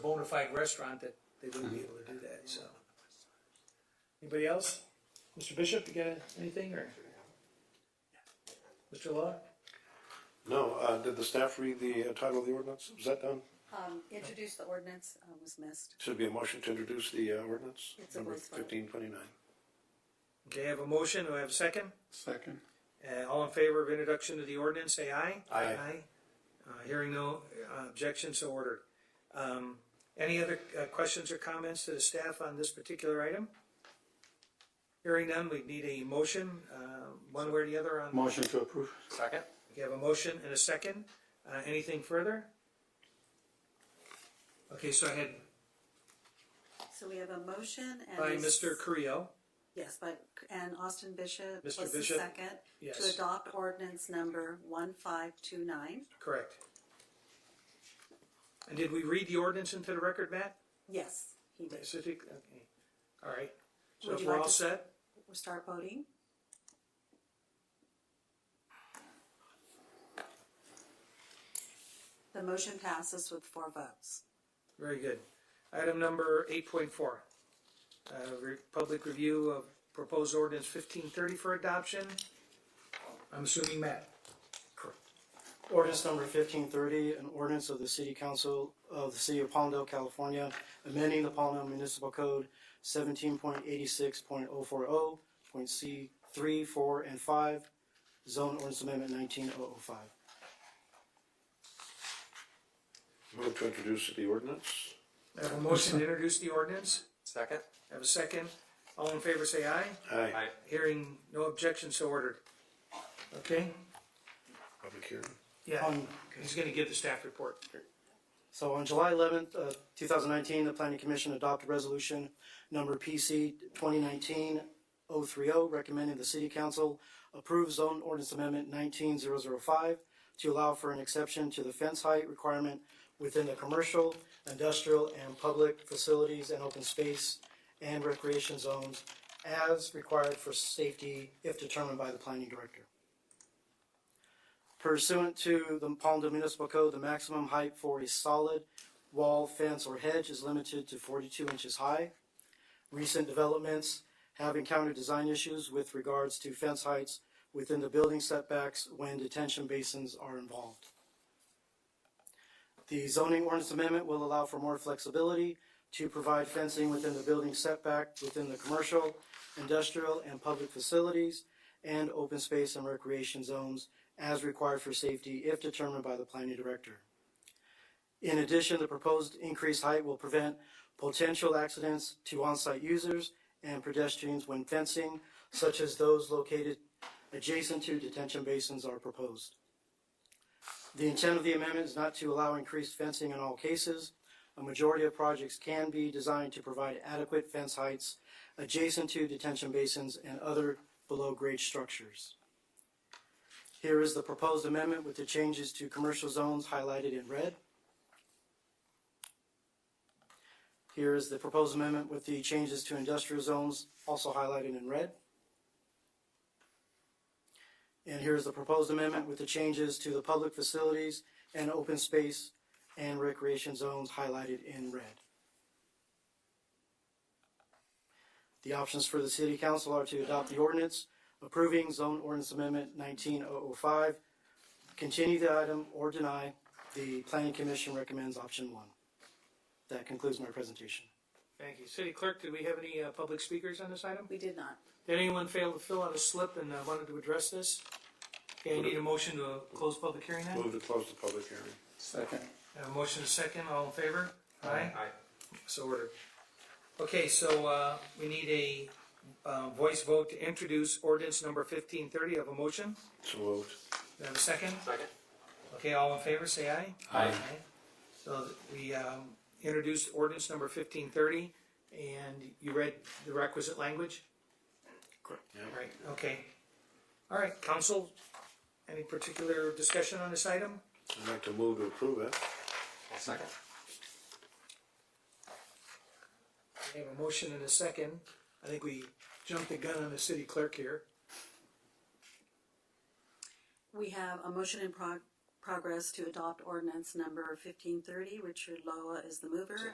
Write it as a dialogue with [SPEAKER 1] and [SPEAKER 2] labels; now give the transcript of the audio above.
[SPEAKER 1] bona fide restaurant that they wouldn't be able to do that, so. Anybody else? Mr. Bishop, you got anything, or? Mr. Law?
[SPEAKER 2] No, uh, did the staff read the uh, title of the ordinance? Was that done?
[SPEAKER 3] Um, introduce the ordinance, uh, was missed.
[SPEAKER 2] Should be a motion to introduce the uh, ordinance,
[SPEAKER 3] It's a
[SPEAKER 2] number
[SPEAKER 3] voice vote.
[SPEAKER 2] fifteen twenty-nine.
[SPEAKER 1] Okay, I have a motion, do I have a second?
[SPEAKER 4] Second.
[SPEAKER 1] Uh, all in favor of introduction to the ordinance, say aye.
[SPEAKER 2] Aye.
[SPEAKER 1] Uh, hearing no uh, objection, so ordered. Um, any other uh, questions or comments to the staff on this particular item? Hearing none, we need a motion, uh, one way or the other on.
[SPEAKER 4] Motion to approve.
[SPEAKER 5] Second?
[SPEAKER 1] We have a motion and a second. Uh, anything further? Okay, so I had
[SPEAKER 3] So we have a motion and.
[SPEAKER 1] by
[SPEAKER 3] a s-
[SPEAKER 1] Mr. Creo,
[SPEAKER 3] Yes, by, and Austin
[SPEAKER 1] Mr.
[SPEAKER 3] Bishop was the
[SPEAKER 1] Bishop?
[SPEAKER 3] second. To
[SPEAKER 1] Yes.
[SPEAKER 3] adopt ordinance number one five two nine.
[SPEAKER 1] correct. And did we read the ordinance into the record, Matt?
[SPEAKER 3] Yes, he did.
[SPEAKER 1] Specific, okay. All right. So
[SPEAKER 3] Would
[SPEAKER 1] if
[SPEAKER 3] you
[SPEAKER 1] we're
[SPEAKER 3] like
[SPEAKER 1] all
[SPEAKER 3] to-
[SPEAKER 1] set?
[SPEAKER 3] We'll start voting. The motion passes with four votes.
[SPEAKER 1] Very good. Item number eight point four. Uh, re- public review of proposed ordinance fifteen thirty for adoption. I'm assuming Matt.
[SPEAKER 6] Ordinance number fifteen thirty, an ordinance of the City Council of the City of Palmdale, California, amending the Palmdale Municipal Code seventeen point eighty-six point oh four oh, point C three, four, and five, zone ordinance amendment nineteen oh oh five.
[SPEAKER 2] Move to introduce the ordinance.
[SPEAKER 1] I have a motion to introduce the ordinance.
[SPEAKER 5] Second?
[SPEAKER 1] I have a second. All in favor say aye.
[SPEAKER 2] Aye.
[SPEAKER 1] Hearing no objection, so ordered. Okay?
[SPEAKER 2] Public hearing.
[SPEAKER 1] Yeah,
[SPEAKER 6] On
[SPEAKER 1] Um, he's gonna give the staff report.
[SPEAKER 6] So on July eleventh, uh, two thousand nineteen, the planning commission adopted resolution number PC 2019-030, recommending the city council approve zone ordinance amendment nineteen zero zero five to allow for an exception to the fence height requirement within the commercial, industrial, and public facilities and open space and recreation zones as required for safety if determined by the planning director. Pursuant to the Palmdale Municipal Code, the maximum height for a solid wall, fence, or hedge is limited to forty-two inches high. Recent developments have encountered design issues with regards to fence heights within the building setbacks when detention basins are involved. The zoning ordinance amendment will allow for more flexibility to provide fencing within the building setback within the commercial, industrial, and public facilities and open space and recreation zones as required for safety if determined by the planning director. In addition, the proposed increased height will prevent potential accidents to on-site users and pedestrians when fencing, such as those located adjacent to detention basins are proposed. The intent of the amendment is not to allow increased fencing in all cases. A majority of projects can be designed to provide adequate fence heights adjacent to detention basins and other below-grade structures. Here is the proposed amendment with the changes to commercial zones highlighted in red. Here is the proposed amendment with the changes to industrial zones also highlighted in red. And here is the proposed amendment with the changes to the public facilities and open space and recreation zones highlighted in red. The options for the city council are to adopt the ordinance approving zone ordinance amendment nineteen oh oh five, continue the item or deny. The planning commission recommends option one. That concludes my presentation.
[SPEAKER 1] Thank you. City Clerk, do we have any, uh, public speakers on this item?
[SPEAKER 3] We did not.
[SPEAKER 1] Did anyone fail to fill out a slip and, uh, wanted to address this? Okay, I need a motion to uh, close public hearing then?
[SPEAKER 2] Move to close the public hearing.
[SPEAKER 4] Second.
[SPEAKER 1] I have a motion and a second, all in favor? Aye.
[SPEAKER 5] Aye.
[SPEAKER 1] So ordered. Okay, so, uh, we need a, uh, voice vote to introduce ordinance number fifteen thirty. Have a motion?
[SPEAKER 2] So moved.
[SPEAKER 1] Do I have a second?
[SPEAKER 5] Second?
[SPEAKER 1] Okay, all in favor, say aye.
[SPEAKER 4] Aye.
[SPEAKER 1] So we um, introduced ordinance number fifteen thirty, and you read the requisite language? Correct.
[SPEAKER 2] Yeah.
[SPEAKER 1] Right, okay. All right, council, any particular discussion on this item?
[SPEAKER 2] I'd like to move to approve it.
[SPEAKER 5] I'll second.
[SPEAKER 1] I have a motion and a second. I think we jumped the gun on the city clerk here.
[SPEAKER 3] We have a motion in prog- progress to adopt ordinance number fifteen thirty. Richard Loa is the mover